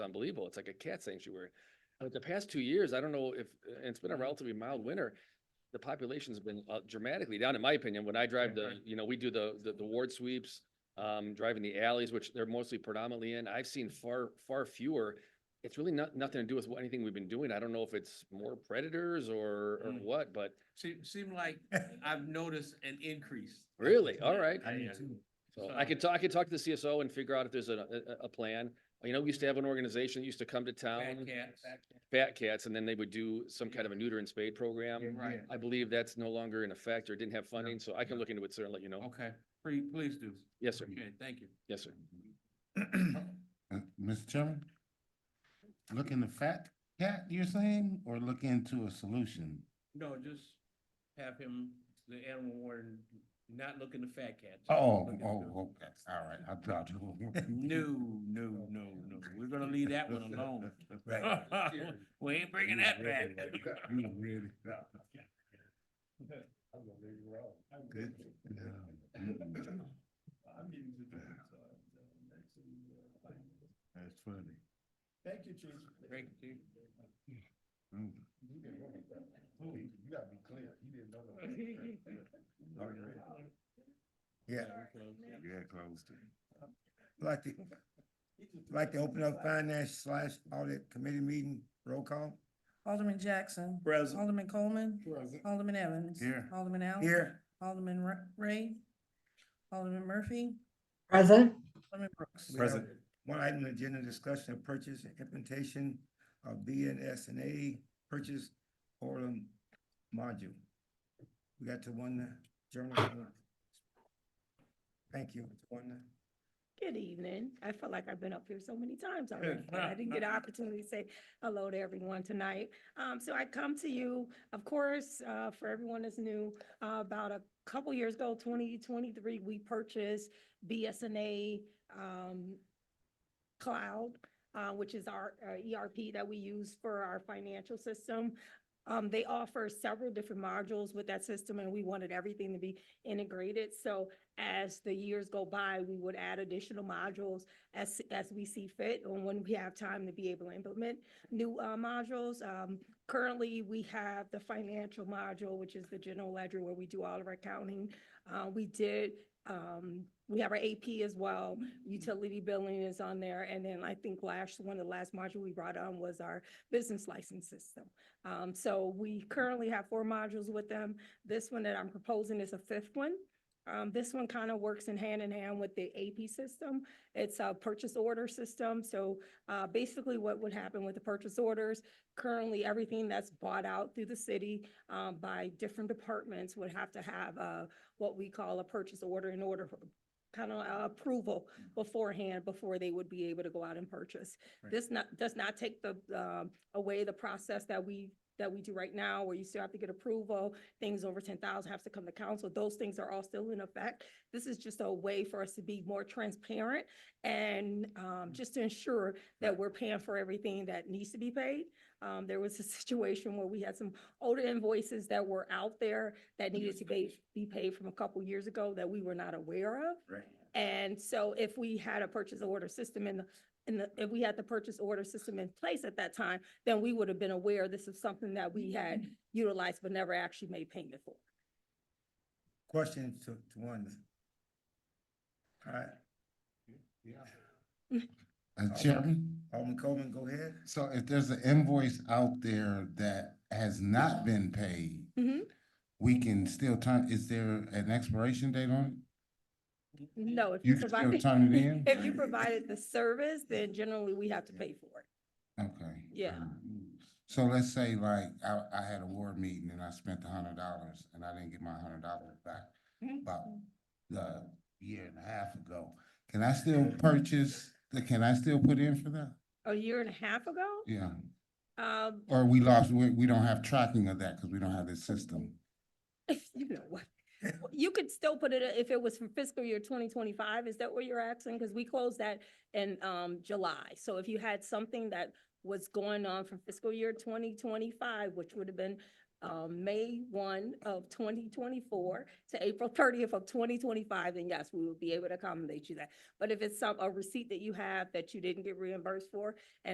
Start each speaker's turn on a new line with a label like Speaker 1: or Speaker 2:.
Speaker 1: unbelievable. It's like a cat sanctuary. But the past two years, I don't know if, and it's been a relatively mild winter. The population's been uh, dramatically down, in my opinion. When I drive the, you know, we do the, the, the ward sweeps, um, driving the alleys, which they're mostly predominantly in. I've seen far, far fewer. It's really not, nothing to do with what- anything we've been doing. I don't know if it's more predators or, or
Speaker 2: Mm.
Speaker 1: what, but
Speaker 2: Seem, seem like I've noticed an increase.
Speaker 1: really, all right.
Speaker 2: I-
Speaker 3: Me
Speaker 2: uh,
Speaker 3: too.
Speaker 1: So I could talk, I could talk to the CSO and figure out if there's a, a, a plan. You know, we used to have an organization that used to come to
Speaker 2: Bad
Speaker 1: town,
Speaker 2: cats,
Speaker 1: fat cats, and then they would do some kind of a neuter and spade program.
Speaker 2: right,
Speaker 1: I believe that's no longer in effect or didn't have funding, so I can look into it, sir, and let you know.
Speaker 2: okay, please, please do.
Speaker 1: Yes, sir.
Speaker 2: Okay, thank you.
Speaker 1: Yes, sir.
Speaker 3: Uh, Mr. Chairman? Look in the fat cat, you're saying, or look into a solution?
Speaker 2: No, just have him, the animal warden, not look in the fat cats.
Speaker 3: Oh,
Speaker 2: Look at
Speaker 3: oh,
Speaker 2: the-
Speaker 3: okay, all right, I thought you.
Speaker 2: No, no, no, no, we're gonna leave that one alone.
Speaker 3: Right.
Speaker 2: We ain't bringing that back.
Speaker 3: You really. Good.
Speaker 2: uh,
Speaker 3: That's funny.
Speaker 2: Thank you, Chief. Thank you.
Speaker 3: Mm. You gotta be clear, he didn't know. that.
Speaker 4: Yeah,
Speaker 3: Yeah, closed it.
Speaker 4: like to, like to open up finance slash audit committee meeting, roll call.
Speaker 5: Alderman Jackson. Alderman Coleman. Alderman Evans.
Speaker 3: Here.
Speaker 5: Alderman Allen.
Speaker 4: Here,
Speaker 5: Alderman Ra- Ray. Alderman Murphy.
Speaker 6: Present,
Speaker 5: Alderman Brooks.
Speaker 4: We have one item, on the agenda discussion of purchase and implementation of B and S and A purchase order module. We got to one journal. Thank you, one.
Speaker 7: Good evening. I feel like I've been up here so many times already, but I didn't get an opportunity to say hello to everyone tonight. Um, so I come to you, of course, uh, for everyone that's new, uh, about a couple years ago, twenty twenty-three, we purchased BSNA, um, Cloud, uh, which is our uh, ERP that we use for our financial system. Um, they offer several different modules with that system and we wanted everything to be integrated. So as the years go by, we would add additional modules as, as we see fit and when we have time to be able to implement new uh, modules. Um, Currently, we have the financial module, which is the general ledger where we do all of our accounting. Uh, We did, um, we have our AP as well. Utility billing is on there. And then I think last, one of the last module we brought on was our business license system. Um, So we currently have four modules with them. This one that I'm proposing is a fifth one. Um, this one kind of works in hand in hand with the AP system. It's a purchase order system. So, uh, basically what would happen with the purchase orders, currently everything that's bought out through the city, um, by different departments would have to have, uh, what we call a purchase order in order for kind of approval beforehand, before they would be able to go out and purchase.
Speaker 4: Right.
Speaker 7: This not, does not take the, um, away the process that we, that we do right now, where you still have to get approval, things over ten thousand have to come to council. Those things are all still in effect. This is just a way for us to be more transparent and um, just to ensure that we're paying for everything that needs to be paid. Um, there was a situation where we had some older invoices that were out there that needed to be, be paid from a couple years ago that we were not aware of.
Speaker 4: Right.
Speaker 7: And so if we had a purchase order system in the, in the, if we had the purchase order system in place at that time, then we would have been aware this is something that we had utilized but never actually made payment for.
Speaker 4: Question to, to one. All right,
Speaker 3: Uh, Chairman?
Speaker 4: Alderman Coleman, go ahead.
Speaker 3: So if there's an invoice out there that has not been paid,
Speaker 7: Mhm.
Speaker 3: we can still turn, is there an expiration date on
Speaker 7: No, if
Speaker 3: it? You
Speaker 7: you
Speaker 3: can still
Speaker 7: provided,
Speaker 3: turn it in?
Speaker 7: if you provided the service, then generally we have to pay for it.
Speaker 3: Okay.
Speaker 7: Yeah.
Speaker 3: So let's say like, I, I had a ward meeting and I spent a hundred dollars and I didn't get my hundred dollars back about the year and a half ago. Can I still purchase, can I still put in for that?
Speaker 7: A year and a half ago,
Speaker 3: Yeah,
Speaker 7: um,
Speaker 3: or we lost, we, we don't have tracking of that because we don't have this system.
Speaker 7: you know what? You could still put it, if it was from fiscal year twenty twenty-five, is that what you're asking? Because we closed that in, um, July. So if you had something that was going on from fiscal year twenty twenty-five, which would have been, um, May one of twenty twenty-four to April thirtieth of twenty twenty-five, then yes, we would be able to accommodate you that. But if it's some, a receipt that you have that you didn't get reimbursed for,